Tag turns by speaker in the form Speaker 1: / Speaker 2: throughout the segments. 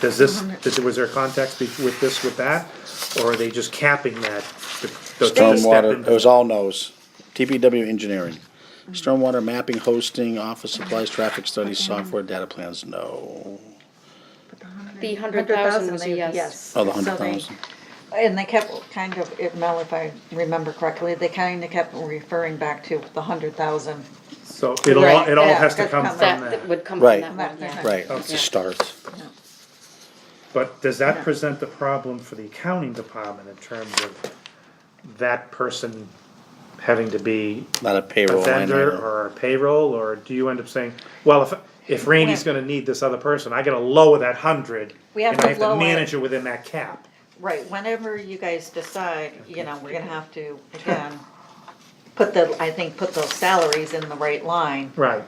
Speaker 1: Does this,
Speaker 2: Mm-hmm.
Speaker 1: does, was there context be- with this, with that, or are they just capping that? the- the- the step
Speaker 3: Stormwater,
Speaker 1: in-
Speaker 3: it was all no's. TPW engineering. Stormwater mapping, hosting, office supplies, traffic studies, software, data plans, no.
Speaker 4: The hundred thousand was a yes.
Speaker 3: Oh, the
Speaker 2: So
Speaker 3: hundred
Speaker 2: they-
Speaker 3: thousand.
Speaker 2: And they kept kind of, if Mel, if I remember correctly, they kind of kept referring back to the hundred thousand.
Speaker 1: So it'll, all- it all
Speaker 2: Right,
Speaker 1: has to
Speaker 2: yeah,
Speaker 1: come
Speaker 2: that's
Speaker 1: from uh,
Speaker 2: come-
Speaker 4: That
Speaker 1: that.
Speaker 4: that would come from
Speaker 3: Right.
Speaker 4: that one, yeah.
Speaker 3: Right, it's a start.
Speaker 1: But does that present the problem for the accounting department in terms of that person having to be
Speaker 3: Not a
Speaker 1: a
Speaker 3: payroll line
Speaker 1: vendor
Speaker 3: item.
Speaker 1: or a payroll, or do you end up saying, well, if, if Randy's gonna need this other person, I gotta lower that hundred.
Speaker 2: We have
Speaker 1: And I
Speaker 2: to
Speaker 1: have to
Speaker 2: lower it.
Speaker 1: manage it within that cap.
Speaker 2: Right, whenever you guys decide, you know, we're gonna have to, again, put the, I think, put those salaries in the right line.
Speaker 1: Right.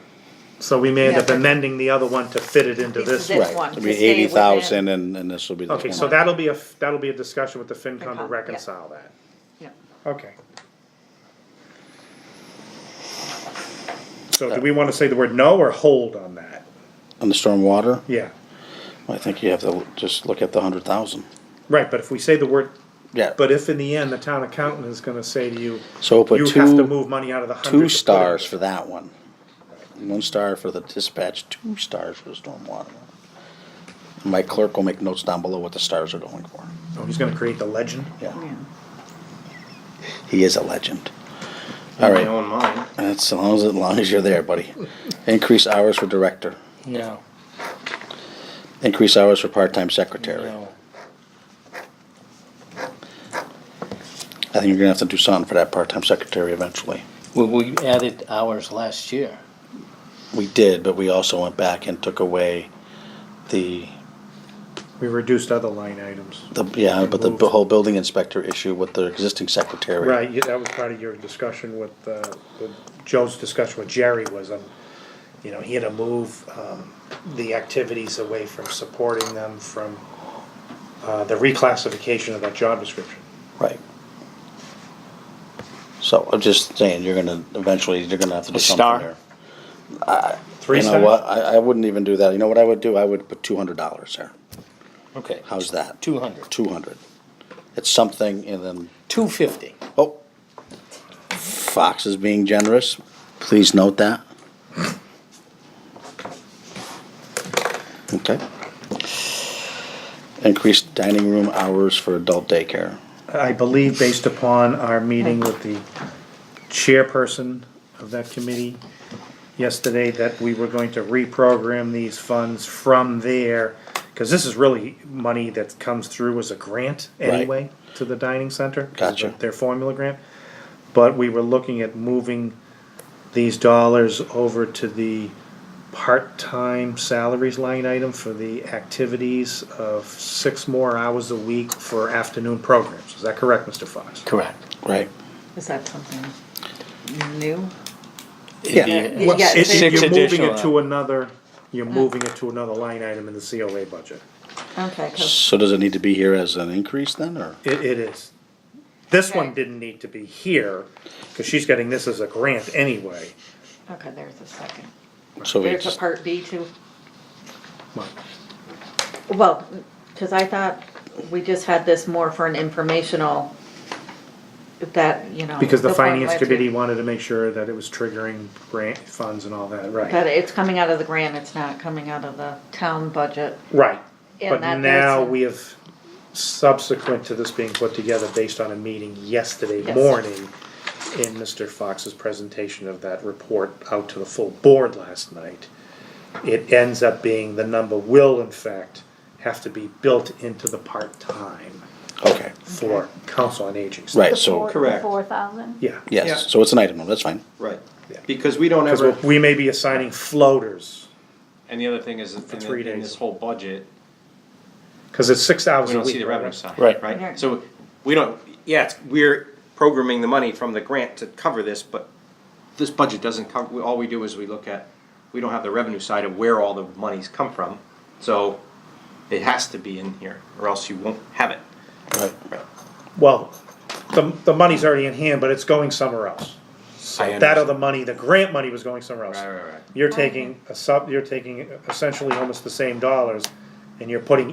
Speaker 1: So we may end up
Speaker 2: Yeah.
Speaker 1: amending the other one to fit it into
Speaker 2: This
Speaker 1: this
Speaker 2: is
Speaker 1: one.
Speaker 2: it.
Speaker 3: Right,
Speaker 2: one
Speaker 3: it'll
Speaker 2: to
Speaker 3: be
Speaker 2: stay
Speaker 3: eighty thousand and, and this will be the
Speaker 1: Okay, so
Speaker 3: twenty.
Speaker 1: that'll be a, that'll be a discussion with the FinCom to
Speaker 2: FinCom, yeah.
Speaker 1: reconcile that.
Speaker 2: Yeah.
Speaker 1: Okay.
Speaker 3: Uh,
Speaker 1: So do we wanna say the word no or hold on that?
Speaker 3: On the stormwater,
Speaker 1: Yeah,
Speaker 3: I think you have to just look at the hundred thousand.
Speaker 1: right, but if we say the word,
Speaker 3: Yeah,
Speaker 1: but if in the end the town accountant is gonna say to you,
Speaker 3: so we'll
Speaker 1: you
Speaker 3: put
Speaker 1: have to
Speaker 3: two,
Speaker 1: move money out of the hundred.
Speaker 3: two stars for that one. One star for the dispatch, two stars for the stormwater. My clerk will make notes down below what the stars are going for.
Speaker 1: Oh, he's gonna create the legend?
Speaker 3: Yeah. He is a legend. All
Speaker 5: my
Speaker 3: right,
Speaker 5: own mind.
Speaker 3: that's as long as, as long as you're there, buddy. Increase hours for director.
Speaker 6: No,
Speaker 3: Increase hours for part-time secretary.
Speaker 6: no.
Speaker 3: I think you're gonna have to do something for that part-time secretary eventually.
Speaker 6: Well, we added hours last year.
Speaker 3: We did, but we also went back and took away the,
Speaker 1: We reduced other line items.
Speaker 3: the, yeah, but the whole building inspector issue with the existing secretary.
Speaker 1: Right, yeah, that was part of your discussion with, uh, with Joe's discussion with Jerry was, um, you know, he had to move, um, the activities away from supporting them from, uh, the reclassification of that job description.
Speaker 3: Right. So I'm just saying, you're gonna, eventually, you're gonna have to do
Speaker 6: A
Speaker 3: something
Speaker 6: star?
Speaker 3: there.
Speaker 1: Three
Speaker 3: You know what,
Speaker 1: cents?
Speaker 3: I, I wouldn't even do that, you know what I would do, I would put two hundred dollars there,
Speaker 6: Okay.
Speaker 3: how's that?
Speaker 6: Two hundred.
Speaker 3: Two hundred. It's something, and then,
Speaker 6: Two fifty.
Speaker 3: oh, Fox is being generous, please note that. Okay. Increased dining room hours for adult daycare,
Speaker 1: I believe based upon our meeting with the chairperson of that committee yesterday, that we were going to reprogram these funds from there, cause this is really money that comes through as a grant anyway to the dining center. 'cause of
Speaker 3: Gotcha.
Speaker 1: Their formula grant, but we were looking at moving these dollars over to the part-time salaries line item for the activities of six more hours a week for afternoon programs. Is that correct, Mr. Fox?
Speaker 6: Correct.
Speaker 3: right?
Speaker 2: Is that something new?
Speaker 3: Yeah.
Speaker 6: It'd
Speaker 2: Well,
Speaker 6: be-
Speaker 2: Yeah,
Speaker 1: It- it-
Speaker 6: six
Speaker 1: You're moving it
Speaker 6: additional.
Speaker 1: to another, you're moving it to another line item in the COA budget.
Speaker 2: Okay, 'cause-
Speaker 3: So does it need to be here as an increase then, or?
Speaker 1: It, it is. This one
Speaker 2: Okay.
Speaker 1: didn't need to be here, cause she's getting this as a grant anyway.
Speaker 2: okay, there's a second.
Speaker 3: So we
Speaker 2: There's a
Speaker 3: just,
Speaker 2: part B too.
Speaker 1: Well,
Speaker 2: Well, cause I thought we just had this more for an informational, that, you know.
Speaker 1: Because the
Speaker 2: part
Speaker 1: finance
Speaker 2: where-
Speaker 1: committee wanted to make sure that it was triggering grant funds and all that,
Speaker 2: That
Speaker 1: right?
Speaker 2: it's coming out of the grant, it's not coming out of the town budget.
Speaker 1: Right,
Speaker 2: And
Speaker 1: but
Speaker 2: that
Speaker 1: now
Speaker 2: does-
Speaker 1: we have, subsequent to this being put together based on a meeting yesterday
Speaker 2: Yes.
Speaker 1: morning in Mr. Fox's presentation of that report out to the full board last night, it ends up being the number will in fact have to be built into the part-time
Speaker 3: okay,
Speaker 1: for council on aging.
Speaker 3: right, so,
Speaker 5: Correct.
Speaker 7: Four thousand?
Speaker 1: Yeah.
Speaker 3: yes, so it's an item, that's fine.
Speaker 5: Right.
Speaker 1: Yeah.
Speaker 5: Because we don't ever,
Speaker 1: Because we may be assigning floaters,
Speaker 5: and the other thing is, in the-
Speaker 1: three
Speaker 5: in
Speaker 1: days.
Speaker 5: this whole budget,
Speaker 1: because it's six hours
Speaker 5: we
Speaker 1: a
Speaker 5: don't see
Speaker 1: week,
Speaker 5: the revenue
Speaker 1: right?
Speaker 5: side.
Speaker 3: Right.
Speaker 2: Right.
Speaker 5: Right, so we don't, yeah, it's, we're programming the money from the grant to cover this, but this budget doesn't cover, all we do is we look at, we don't have the revenue side of where all the monies come from, so it has to be in here, or else you won't have it.
Speaker 3: Right.
Speaker 1: Well, the, the money's already in hand, but it's going somewhere else.
Speaker 5: I
Speaker 1: That
Speaker 5: understand.
Speaker 1: other money, the grant money was going somewhere else.
Speaker 5: Right, right, right.
Speaker 1: You're taking a sub, you're taking essentially almost the same dollars and you're putting